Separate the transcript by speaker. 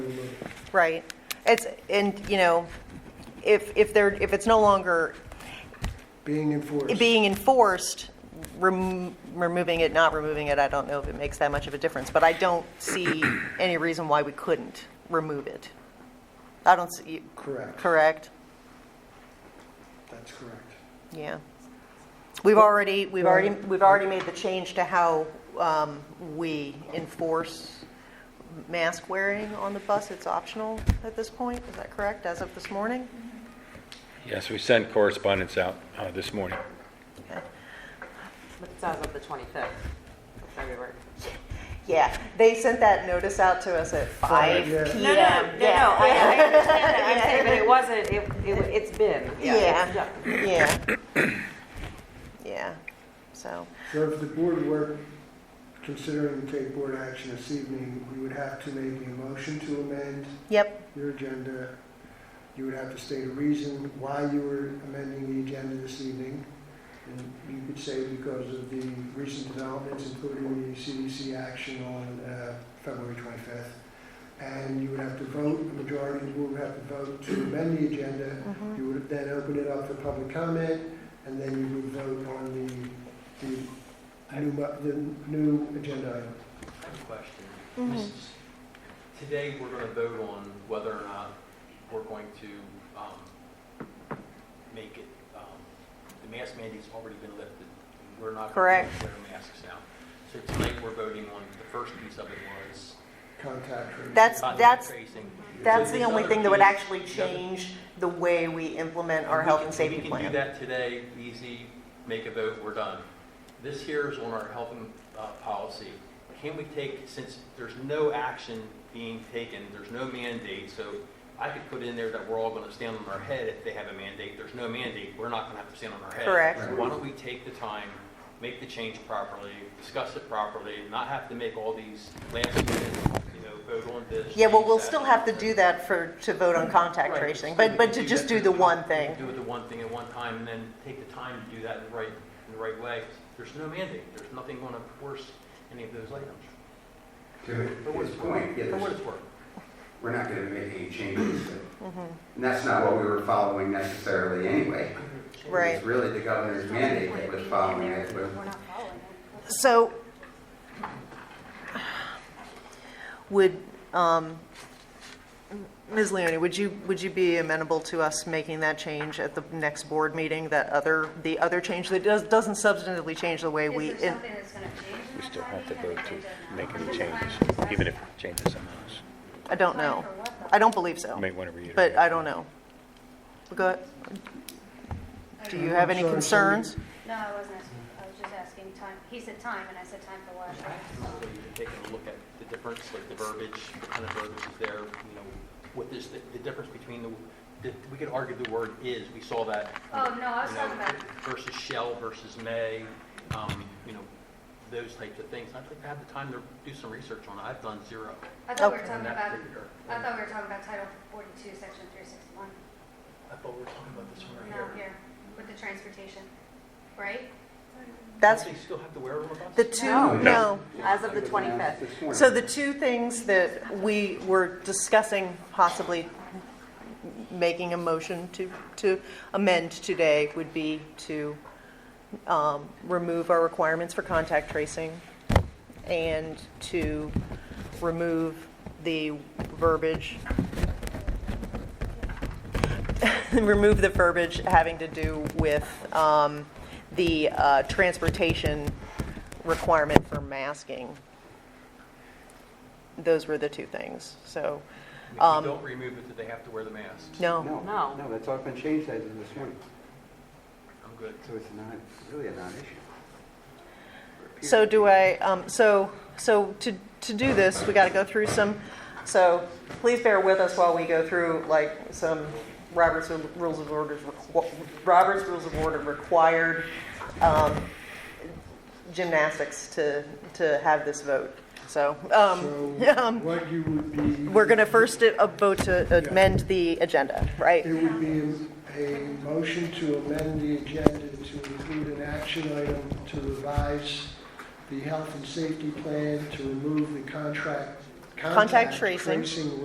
Speaker 1: Right. It's, and, you know, if, if they're, if it's no longer
Speaker 2: being enforced.
Speaker 1: being enforced, rem- removing it, not removing it, I don't know if it makes that much of a difference, but I don't see any reason why we couldn't remove it. I don't see,
Speaker 2: Correct.
Speaker 1: correct?
Speaker 2: That's correct.
Speaker 1: Yeah. We've already, we've already, we've already made the change to how um, we enforce mask wearing on the bus. It's optional at this point, is that correct, as of this morning?
Speaker 3: Yes, we sent correspondence out uh, this morning.
Speaker 1: Okay.
Speaker 4: But it's as of the 25th of February.
Speaker 1: Yeah, they sent that notice out to us at five
Speaker 2: yeah.
Speaker 1: PM.
Speaker 4: No, no, no,
Speaker 1: Yeah.
Speaker 4: no, I I understand that, I'm saying, but it wasn't, it- it, wa- it's been. it's-
Speaker 1: Yeah, yeah. Yeah, so,
Speaker 2: So if the board were considering to take board action this evening, we would have to make a motion to amend
Speaker 1: yep,
Speaker 2: your agenda. You would have to state a reason why you were amending the agenda this evening. And you could say because of the recent developments, including the CDC action on uh, February 25th. And you would have to vote, the majority of the board would have to vote to amend the agenda.
Speaker 1: mm-hmm,
Speaker 2: You would then open it up for public comment, and then you would vote on the, the new, bu- the new agenda item.
Speaker 5: I have a question.
Speaker 1: mm-hmm.
Speaker 5: This is- Today, we're going to vote on whether or not we're going to um, make it, um, the mask mandate's already been lifted. We're not going
Speaker 1: Correct.
Speaker 5: to wear masks now. So tonight, we're voting on, the first piece of it was
Speaker 2: Contact tracing.
Speaker 1: that's,
Speaker 5: contact
Speaker 1: that's,
Speaker 5: tracing.
Speaker 1: that's
Speaker 5: So
Speaker 1: the
Speaker 5: this
Speaker 1: only
Speaker 5: other
Speaker 1: thing that would
Speaker 5: piece-
Speaker 1: actually
Speaker 5: the other-
Speaker 1: change the way we implement our
Speaker 5: we
Speaker 1: health
Speaker 5: can-
Speaker 1: and safety
Speaker 5: We can do
Speaker 1: plan.
Speaker 5: that today, easy, make a vote, we're done. This here is on our health and, uh, policy. Can we take, since there's no action being taken, there's no mandate, so I could put in there that we're all gonna stand on our head if they have a mandate. There's no mandate, we're not gonna have to stand on our head.
Speaker 1: Correct.
Speaker 5: So Why don't we take the time, make the change properly, discuss it properly, not have to make all these last minute, you know, vote on this.
Speaker 1: Yeah, well,
Speaker 5: change
Speaker 1: we'll
Speaker 5: that.
Speaker 1: still have to do that for, to vote on contact
Speaker 5: Right,
Speaker 1: tracing,
Speaker 5: so
Speaker 1: but,
Speaker 5: we
Speaker 1: but
Speaker 5: can
Speaker 1: to
Speaker 5: do
Speaker 1: just
Speaker 5: that
Speaker 1: do
Speaker 5: at
Speaker 1: the
Speaker 5: one-
Speaker 1: one
Speaker 5: we can
Speaker 1: thing.
Speaker 5: Do it the one thing at one time, and then take the time to do that in the right, in the right way. There's no mandate, there's nothing going to force any of those items.
Speaker 6: To his point, yeah,
Speaker 5: For what
Speaker 6: there's-
Speaker 5: it's worth.
Speaker 6: we're not going to make any changes.
Speaker 1: Mm-hmm.
Speaker 6: And that's not what we were following necessarily anyway.
Speaker 1: Right.
Speaker 6: It's really the governor's mandate that was following it, but
Speaker 7: We're not following it.
Speaker 1: So would, um, Ms. Leoni, would you, would you be amenable to us making that change at the next board meeting, that other, the other change that does, doesn't substantively change the way
Speaker 7: Is
Speaker 1: we?
Speaker 7: there
Speaker 1: in-
Speaker 7: something that's gonna change in
Speaker 3: We
Speaker 7: that
Speaker 3: still have to
Speaker 7: timing?
Speaker 3: vote
Speaker 7: Have they
Speaker 3: to
Speaker 7: done that?
Speaker 3: make
Speaker 7: I'm
Speaker 3: any
Speaker 7: just
Speaker 3: changes,
Speaker 7: trying to
Speaker 3: even if
Speaker 7: assess
Speaker 3: it changes someone else.
Speaker 1: I don't know.
Speaker 7: Time for what, though?
Speaker 1: I don't believe so.
Speaker 3: You may wanna reiterate.
Speaker 1: But I don't know. Go, do you have any
Speaker 2: I'm sorry, somebody-
Speaker 1: concerns?
Speaker 7: No, I wasn't asking, I was just asking time, he said time, and I said time for what?
Speaker 5: So you can take a look at the difference, like the verbiage, what kind of verbiage is there, you know, what is, the- the difference between the, the- we could argue the word is, we saw that.
Speaker 7: Oh, no, I was
Speaker 5: you know,
Speaker 7: talking about,
Speaker 5: Versus shell versus may, um, you know, those types of things. I'd like to have the time to do some research on it. I've done zero.
Speaker 7: I thought we were
Speaker 1: Okay.
Speaker 7: talking
Speaker 5: on that
Speaker 7: about,
Speaker 5: particular-
Speaker 7: I thought we were talking about Title 42, Section 361.
Speaker 5: I thought we were talking about this one right
Speaker 7: No,
Speaker 5: here.
Speaker 7: here, with the transportation, right?
Speaker 1: That's
Speaker 5: Don't they still have to wear them
Speaker 1: the two,
Speaker 4: No.
Speaker 1: no.
Speaker 4: As of the
Speaker 6: It was announced
Speaker 4: 25th.
Speaker 6: this morning.
Speaker 1: So the two things that we were discussing possibly making a motion to, to amend today would be to um, remove our requirements for contact tracing and to remove the verbiage, remove the verbiage having to do with um, the uh, transportation requirement for masking those were the two things. So,
Speaker 5: If
Speaker 1: um,
Speaker 5: you don't remove it, do they have to wear the masks?
Speaker 1: no,
Speaker 6: No,
Speaker 4: No.
Speaker 6: no, that's all been changed as of this morning.
Speaker 5: I'm good.
Speaker 6: So it's not, really a non-issue.
Speaker 1: so do I, um, so, so to, to do this, we got to go through some, so please bear with us while we go through like some Robert's Rules of Orders, requ- Robert's Rules of Order required um, gymnastics to, to have this vote. So, um,
Speaker 2: So
Speaker 1: um,
Speaker 2: what you would be.
Speaker 1: we're going to first uh, vote to amend the agenda, right?
Speaker 2: It would be a motion to amend the agenda to include an action item to revise the health and safety plan, to remove the contract.
Speaker 1: Contact tracing.
Speaker 2: Tracing